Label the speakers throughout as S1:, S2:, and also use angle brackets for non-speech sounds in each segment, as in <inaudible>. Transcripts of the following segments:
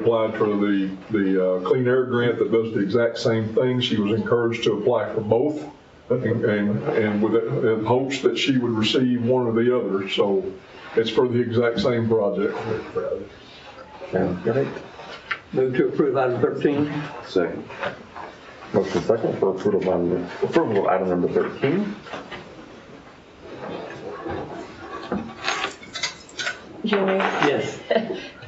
S1: applied for the, the uh, Clean Air Grant that does the exact same thing. She was encouraged to apply for both and, and and with, it- in hopes that she would receive one or the other. So it's for the exact same project.
S2: And
S3: Move to approve item 13.
S2: second. Motion second for approval of item, approval of item number 13.
S4: Jimmy,
S3: Yes.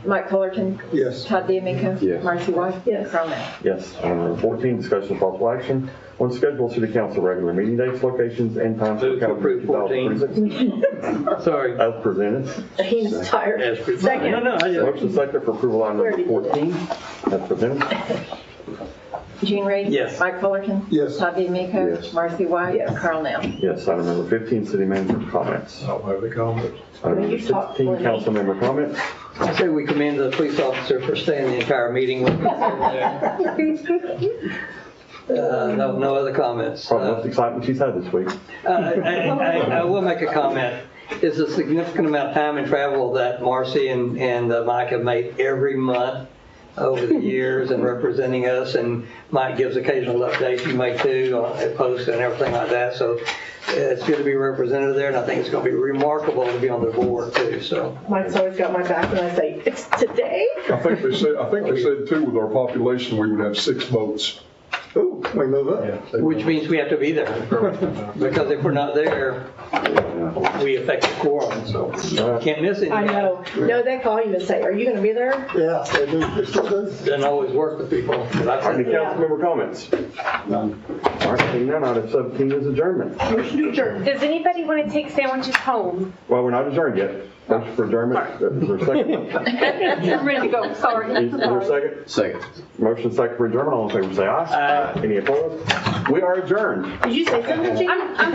S4: Mike Fullerton.
S1: Yes.
S4: Todd D'Amico.
S2: Yes.
S4: Marcy White. Yes. Carl Nell.
S2: Yes. Item number 14, discussion of possible action on schedule of city council regular meeting dates, locations, and times for
S3: Move to
S2: calendar
S3: approve 14.
S2: 2026
S3: Sorry.
S2: As presented.
S5: He's tired.
S3: As per-
S5: Second.
S3: No, no, I just-
S2: Motion second for approval of item number 14. As presented.
S4: Gene Reed.
S3: Yes.
S4: Mike Fullerton.
S1: Yes.
S4: Todd D'Amico.
S2: Yes.
S4: Marcy White. Yes. Carl Nell.
S2: Yes. Item number 15, city manager comments.
S1: I don't have any comments.
S2: Item
S5: Will
S2: number
S5: you talk
S2: 16,
S5: for me?
S2: council member comments.
S3: I say we commend the police officer for staying the entire meeting with us. Uh, No, no other comments.
S2: Probably the
S3: Uh,
S2: most excitement she's had this week.
S3: I I- I- I will make a comment. It's a significant amount of time and travel that Marcy and and uh, Mike have made every month over the years and representing us, and Mike gives occasional updates, you may too, on posts and everything like that, so uh, it's good to be represented there, and I think it's going to be remarkable to be on the board too, so.
S5: Mike's always got <laughs> my back and I say, it's today?
S1: I think they said, I think they said too, with our population, we would have six votes. Ooh, we move up.
S3: Which means we have to be there, because if we're not there, we affect the quorum, so can't miss it.
S5: I know. No, they call him and say, are you gonna be there?
S6: Yeah, they do. They still do.
S3: Doesn't always work with people, but I
S2: Any
S3: think
S2: council member comments? All right, seeing none, item 17 is adjournment.
S5: Motion to adjourn.
S7: Does anybody want to take sandwiches home?
S2: Well, we're not adjourned yet. Motion for adjournment, is there a
S7: <laughs>
S2: second?
S7: I'm ready to go, sorry.
S2: Is there a second? Second. Motion second for adjournment, all in favor, say aye. Aye. Any opposed? We are adjourned.
S5: Did you say something, Gene?
S7: I'm, I'm